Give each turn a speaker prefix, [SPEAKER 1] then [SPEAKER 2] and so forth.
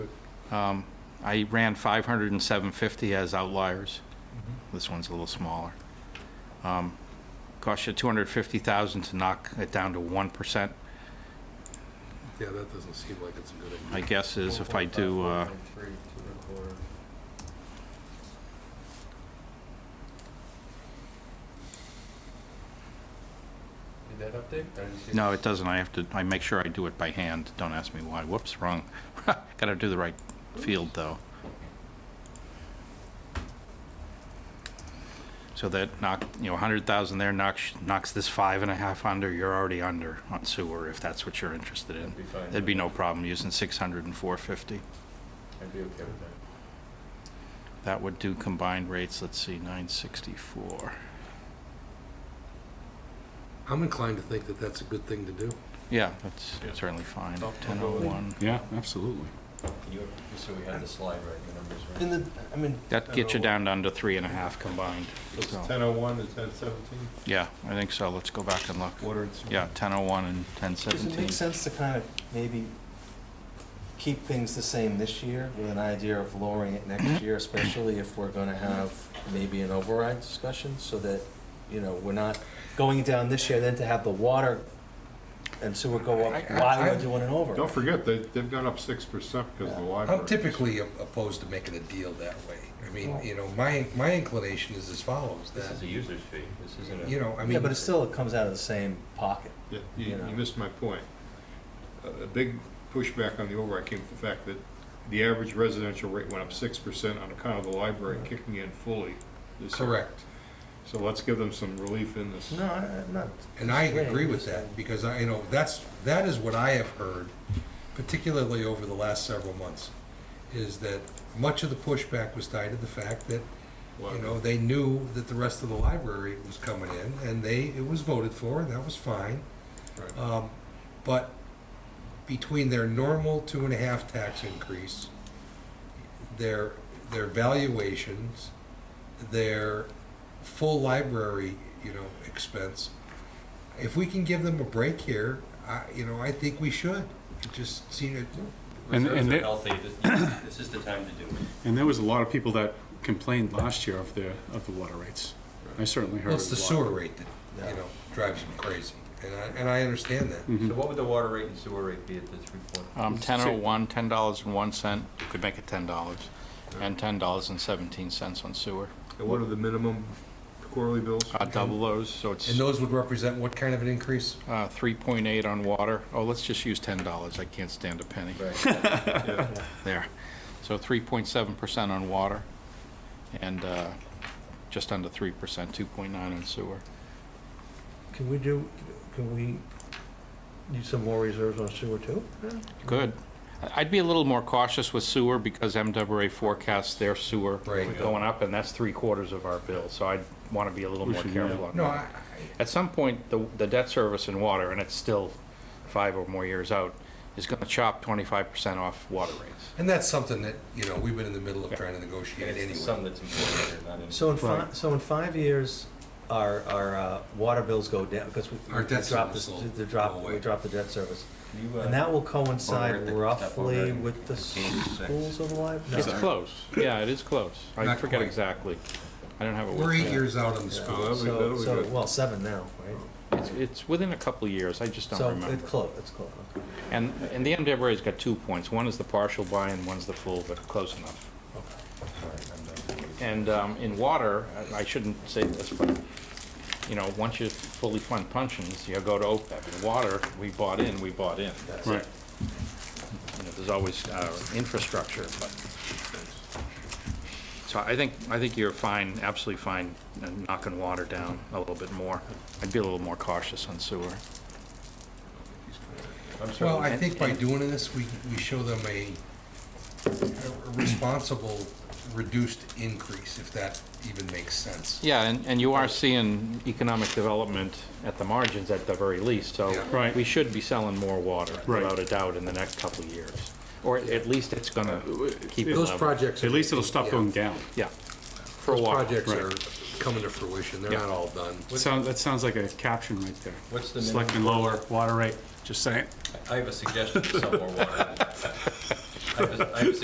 [SPEAKER 1] Um, I ran 500 and 750 as outliers. This one's a little smaller. Um, Cost you 250,000 to knock it down to 1%.
[SPEAKER 2] Yeah, that doesn't seem like it's a good idea.
[SPEAKER 1] My guess is if I do, uh,
[SPEAKER 3] Did that update? I didn't see
[SPEAKER 1] no, it doesn't, I have to, I make sure I do it by hand. Don't ask me why. Whoops, wrong. Gotta do the right field, though. So that knock, you know, 100,000 there knocks, knocks this five and a half under, you're already under on sewer, if that's what you're interested in.
[SPEAKER 3] That'd be fine.
[SPEAKER 1] There'd be no problem using 600 and 450.
[SPEAKER 3] I'd be okay with that.
[SPEAKER 1] That would do combined rates, let's see, 964.
[SPEAKER 2] I'm inclined to think that that's a good thing to do.
[SPEAKER 1] Yeah, that's
[SPEAKER 3] Yeah.
[SPEAKER 1] certainly fine.
[SPEAKER 3] Stop.
[SPEAKER 1] 1001.
[SPEAKER 4] Yeah, absolutely.
[SPEAKER 3] Can you, just so we have the slide right, the numbers right?
[SPEAKER 5] In the, I mean,
[SPEAKER 1] That gets you down to under three and a half combined.
[SPEAKER 6] It's
[SPEAKER 1] So,
[SPEAKER 6] 1001 to 1017,
[SPEAKER 1] Yeah, I think so. Let's go back and look.
[SPEAKER 6] water and sewer.
[SPEAKER 1] Yeah, 1001 and
[SPEAKER 5] does it
[SPEAKER 1] 1017.
[SPEAKER 5] make sense to kind of maybe keep things the same this year with an idea of lowering it next year, especially if we're gonna have maybe an override discussion, so that, you know, we're not going down this year, then to have the water and sewer go up
[SPEAKER 2] I- I-
[SPEAKER 5] while
[SPEAKER 2] I-
[SPEAKER 5] we're doing an override.
[SPEAKER 6] Don't forget, they, they've gone up 6% because of the library.
[SPEAKER 2] I'm typically op- opposed to making a deal that way. I mean, you know, my, my inclination is as follows,
[SPEAKER 3] This
[SPEAKER 2] that,
[SPEAKER 3] is a user's fee, this isn't a.
[SPEAKER 2] you know, I mean.
[SPEAKER 5] Yeah, but it still comes out of the same pocket.
[SPEAKER 6] Yeah, You,
[SPEAKER 5] you know.
[SPEAKER 6] you missed my point. A a big pushback on the override came from the fact that the average residential rate went up 6% on account of the library kicking in fully. this year.
[SPEAKER 2] Correct.
[SPEAKER 6] So let's give them some relief in this.
[SPEAKER 5] No, I- I'm not.
[SPEAKER 2] And I
[SPEAKER 5] disagreeing,
[SPEAKER 2] agree with
[SPEAKER 5] just saying.
[SPEAKER 2] that, because I, you know, that's, that is what I have heard, particularly over the last several months, is that much of the pushback was tied to the fact that, you know, they knew that the rest of the library was coming in, and they, it was voted for, and that was fine.
[SPEAKER 6] Right.
[SPEAKER 4] uh,
[SPEAKER 2] Um, But between their normal two and a half tax increase, their, their valuations, their full library, you know, expense, if we can give them a break here, I, you know, I think we should. It Just see it,
[SPEAKER 4] And-
[SPEAKER 3] Reserves
[SPEAKER 4] and
[SPEAKER 3] are
[SPEAKER 4] it-
[SPEAKER 3] healthy, this, this is the time to do it.
[SPEAKER 4] And there was a lot of people that complained last year of the, of the water rates. I certainly heard
[SPEAKER 2] well,
[SPEAKER 4] it
[SPEAKER 2] it's the
[SPEAKER 4] a lot.
[SPEAKER 2] sewer rate that, you know, drives them crazy, and I, and I understand that.
[SPEAKER 3] So what would the water rate and sewer rate be at the three point?
[SPEAKER 1] Um, 1001, $10.01, could make it $10, and $10.17 on sewer.
[SPEAKER 6] And what are the minimum quarterly bills?
[SPEAKER 1] Uh, Double those, so it's
[SPEAKER 2] And those would represent what kind of an increase?
[SPEAKER 1] uh, 3.8 on water. Oh, let's just use $10. I can't stand a penny.
[SPEAKER 3] Right,
[SPEAKER 6] Yeah.
[SPEAKER 1] there. So 3.7% on water and uh, just under 3%, 2.9 on sewer.
[SPEAKER 7] Can we do, can we use some more reserves on sewer too?
[SPEAKER 1] Good. I- I'd be a little more cautious with sewer because MWA forecasts their sewer
[SPEAKER 2] Right.
[SPEAKER 1] going up, and that's three quarters of our bill. So I'd want to be a little
[SPEAKER 4] We
[SPEAKER 1] more
[SPEAKER 4] should,
[SPEAKER 1] careful on
[SPEAKER 2] No,
[SPEAKER 1] that.
[SPEAKER 2] I, I-
[SPEAKER 1] At some point, the the debt service in water, and it's still five or more years out, is going to chop 25% off water rates.
[SPEAKER 2] and that's something that, you know, we've been in the middle of trying to
[SPEAKER 3] and
[SPEAKER 2] negotiate
[SPEAKER 3] it's the
[SPEAKER 2] anyway.
[SPEAKER 3] sum that's important here, not any.
[SPEAKER 5] So in five, so in five years, our, our uh, water bills go down, because we.
[SPEAKER 2] Our debt
[SPEAKER 5] we dropped
[SPEAKER 2] service
[SPEAKER 5] this-
[SPEAKER 2] will
[SPEAKER 5] The drop,
[SPEAKER 2] go away.
[SPEAKER 5] we dropped the debt service.
[SPEAKER 3] You, uh,
[SPEAKER 5] And that will
[SPEAKER 3] Over
[SPEAKER 5] coincide
[SPEAKER 3] the-
[SPEAKER 5] roughly
[SPEAKER 3] over the-
[SPEAKER 5] with the schools of life?
[SPEAKER 1] It's
[SPEAKER 6] Oh,
[SPEAKER 1] close. Yeah, it is close. I
[SPEAKER 2] Not
[SPEAKER 1] forget
[SPEAKER 2] quite.
[SPEAKER 1] exactly. I don't have it with me.
[SPEAKER 2] We're eight years out on the school.
[SPEAKER 6] that'll be- that'll
[SPEAKER 5] So,
[SPEAKER 6] be
[SPEAKER 5] so,
[SPEAKER 6] good. Oh,
[SPEAKER 5] well, seven now, right?
[SPEAKER 1] It's, it's within a couple of years, I just don't
[SPEAKER 5] So
[SPEAKER 1] remember.
[SPEAKER 5] it's close, it's close. okay.
[SPEAKER 1] And, and the MWRA's got two points, one is the partial buy and one's the full, but close enough.
[SPEAKER 3] All right, I'm done.
[SPEAKER 1] And um, in water, I- I shouldn't say this, but, you know, once you fully fund pensions, you go to OPEB. In water, we bought in, we bought in. That's it.
[SPEAKER 4] Right.
[SPEAKER 1] You know, there's always uh, infrastructure, but. So I think, I think you're fine, absolutely fine, uh, knocking water down a little bit more. I'd be a little more cautious on sewer.
[SPEAKER 3] I'm sorry.
[SPEAKER 2] Well, I think by doing this, we, we show them a a responsible reduced increase, if that even makes sense.
[SPEAKER 1] Yeah, and, and you are seeing economic development at the margins at the very least, so
[SPEAKER 2] Yeah.
[SPEAKER 4] Right.
[SPEAKER 1] we should be selling more water,
[SPEAKER 4] Right.
[SPEAKER 1] without a doubt, in the next couple of years. Or at least it's gonna keep it
[SPEAKER 4] Those
[SPEAKER 1] level.
[SPEAKER 2] projects.
[SPEAKER 4] At least it'll stop going down.
[SPEAKER 1] Yeah, for a while.
[SPEAKER 2] Projects
[SPEAKER 4] Right.
[SPEAKER 2] are coming to fruition, they're
[SPEAKER 1] Yeah.
[SPEAKER 2] not all done.
[SPEAKER 4] Sounds, that sounds like a caption right there.
[SPEAKER 3] What's the minimum?
[SPEAKER 4] Selecting lower water rate, just saying.
[SPEAKER 3] I have a suggestion for some more water. I have a- I have a